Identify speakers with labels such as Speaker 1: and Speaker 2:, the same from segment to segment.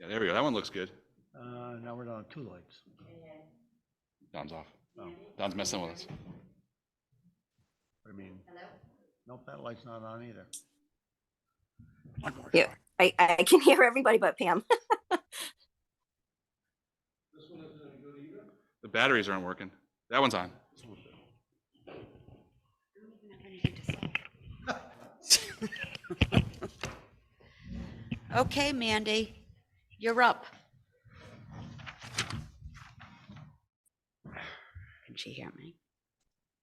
Speaker 1: Yeah, there we go. That one looks good.
Speaker 2: Uh, now we're down to two lights.
Speaker 1: Don's off.
Speaker 2: Oh,
Speaker 1: Don's messing with us.
Speaker 2: I mean, nope, that light's not on either.
Speaker 1: One more
Speaker 3: Yeah.
Speaker 1: try.
Speaker 3: I, I can hear everybody but Pam.
Speaker 1: The batteries aren't working. That one's on.
Speaker 4: Okay, Mandy, you're up. Can she hear me?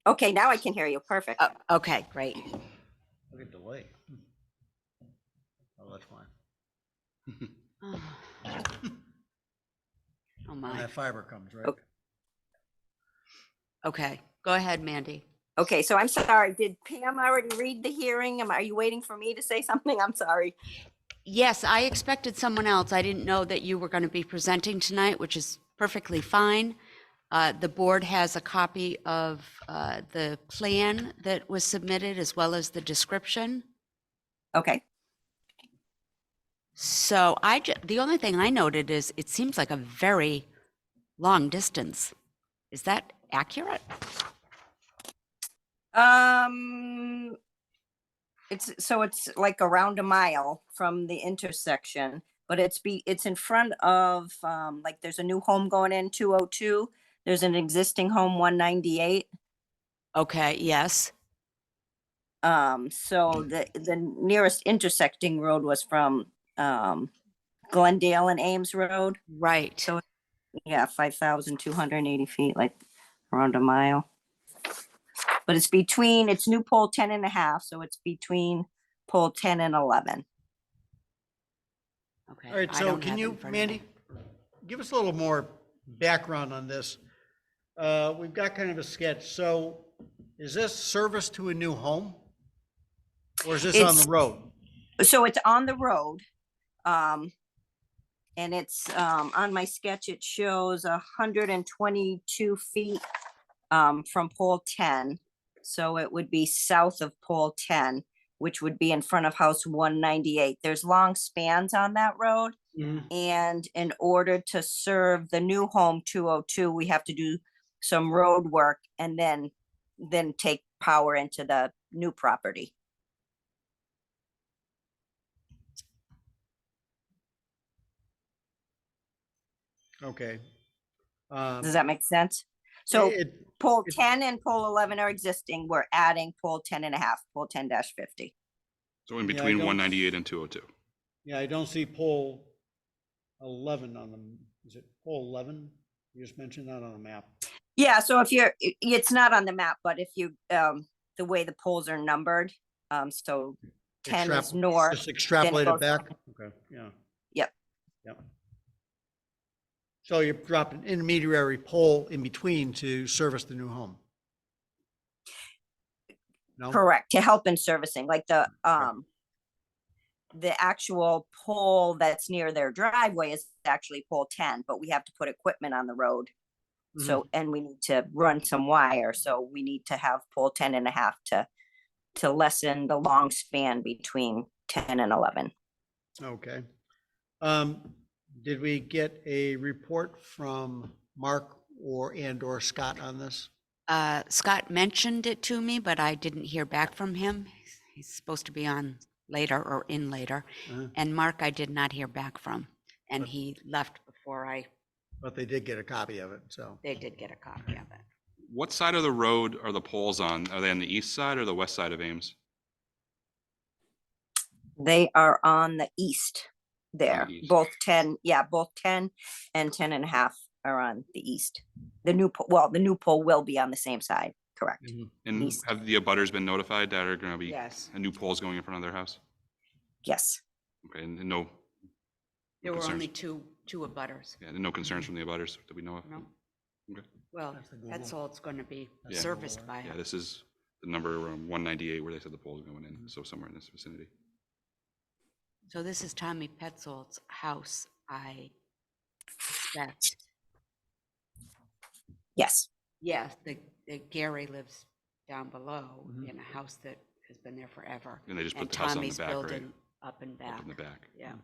Speaker 3: Okay, now I can hear you. Perfect.
Speaker 4: Oh, okay, great.
Speaker 2: Look at the light. Oh, that's fine.
Speaker 4: Oh Oh,
Speaker 2: And
Speaker 4: my.
Speaker 2: that fiber comes, right?
Speaker 3: Oh.
Speaker 4: Okay, go ahead, Mandy.
Speaker 3: Okay, so I'm sorry. Did Pam already read the hearing? Am, are you waiting for me to say something? I'm sorry.
Speaker 4: Yes, I expected someone else. I didn't know that you were going to be presenting tonight, which is perfectly fine. Uh, The board has a copy of uh, the plan that was submitted as well as the description.
Speaker 3: Okay.
Speaker 4: So I, ju- the only thing I noted is it seems like a very long distance. Is that accurate?
Speaker 3: Um, it's, so it's like around a mile from the intersection, but it's be, it's in front of, um, like there's a new home going in two oh two. There's an existing home one ninety-eight.
Speaker 4: Okay, yes.
Speaker 3: Um, so the, the nearest intersecting road was from, um, Glendale and Ames Road.
Speaker 4: Right.
Speaker 3: So- Yeah, five thousand two hundred and eighty feet, like around a mile. But it's between, it's new pole ten and a half, so it's between pole ten and eleven.
Speaker 4: Okay.
Speaker 2: All right,
Speaker 4: I
Speaker 2: so
Speaker 4: don't
Speaker 2: can
Speaker 4: have it in
Speaker 2: you,
Speaker 4: front of me.
Speaker 2: Mandy, give us a little more background on this? Uh, we've got kind of a sketch. So is this service to a new home? Or is this on
Speaker 3: It's-
Speaker 2: the road?
Speaker 3: So it's on the road. Um, and it's, um, on my sketch, it shows a hundred and twenty-two feet, um, from pole ten. So it would be south of pole ten, which would be in front of house one ninety-eight. There's long spans on that road.
Speaker 2: Mm-hmm.
Speaker 3: And in order to serve the new home two oh two, we have to do some road work and then, then take power into the new property.
Speaker 2: Okay. Um,
Speaker 3: Does that make sense? So
Speaker 2: it-
Speaker 3: pole
Speaker 2: it-
Speaker 3: ten and pole eleven are existing. We're adding pole ten and a half, pole ten dash fifty.
Speaker 1: So in
Speaker 2: Yeah, I
Speaker 1: between
Speaker 2: don't-
Speaker 1: 198 and 202.
Speaker 2: Yeah, I don't see pole eleven on the, is it pole eleven? You just mentioned that on the map.
Speaker 3: Yeah, so if you're, i- it's not on the map, but if you, um, the way the poles are numbered, um, so ten is
Speaker 2: Extrapol-
Speaker 3: north.
Speaker 2: Just extrapolate
Speaker 3: goes-
Speaker 2: it back, okay, yeah.
Speaker 3: Yep.
Speaker 2: Yep. So you're dropping intermediary pole in between to service the new home? No?
Speaker 3: Correct, to help in servicing, like the, um, the actual pole that's near their driveway is actually pole ten, but we have to put equipment on the road.
Speaker 2: Mhm.
Speaker 3: So, and we need to run some wire, so we need to have pole ten and a half to, to lessen the long span between ten and eleven.
Speaker 2: Okay. Um, did we get a report from Mark or, and or Scott on this?
Speaker 4: Uh, Scott mentioned it to me, but I didn't hear back from him. He's supposed to be on later or in later.
Speaker 2: Uh-huh.
Speaker 4: And Mark, I did not hear back from. And he left before I,
Speaker 2: But they did get a copy of it, so.
Speaker 4: they did get a copy of it.
Speaker 1: What side of the road are the poles on? Are they on the east side or the west side of Ames?
Speaker 3: They are on the east there,
Speaker 1: east.
Speaker 3: both ten, yeah, both ten and ten and a half are on the east. The new, po- well, the new pole will be on the same side, correct?
Speaker 1: And
Speaker 3: East.
Speaker 1: have the abutters been notified that are going to be,
Speaker 4: Yes.
Speaker 1: a new pole's going in front of their house?
Speaker 3: Yes.
Speaker 1: Okay, and and no,
Speaker 4: There were
Speaker 1: concerns.
Speaker 4: only two, two abutters.
Speaker 1: yeah, no concerns from the abutters that we know of?
Speaker 4: No.
Speaker 1: Okay.
Speaker 4: Well,
Speaker 2: That's the
Speaker 4: that's
Speaker 2: Google.
Speaker 4: all it's going to be
Speaker 2: That's
Speaker 1: the
Speaker 4: serviced
Speaker 2: Google,
Speaker 4: by.
Speaker 1: Yeah, this is the number um, 198 where they said the pole's going in, so somewhere in this vicinity.
Speaker 4: So this is Tommy Petzold's house, I suspect.
Speaker 3: Yes,
Speaker 4: Yes, the, the Gary lives down below
Speaker 2: Mhm.
Speaker 4: in a house that has been there forever.
Speaker 1: And they just put
Speaker 4: And
Speaker 1: the house on the
Speaker 4: Tommy's
Speaker 1: back, right?
Speaker 4: building up and
Speaker 1: Up
Speaker 4: back.
Speaker 1: in the back.
Speaker 4: Yeah.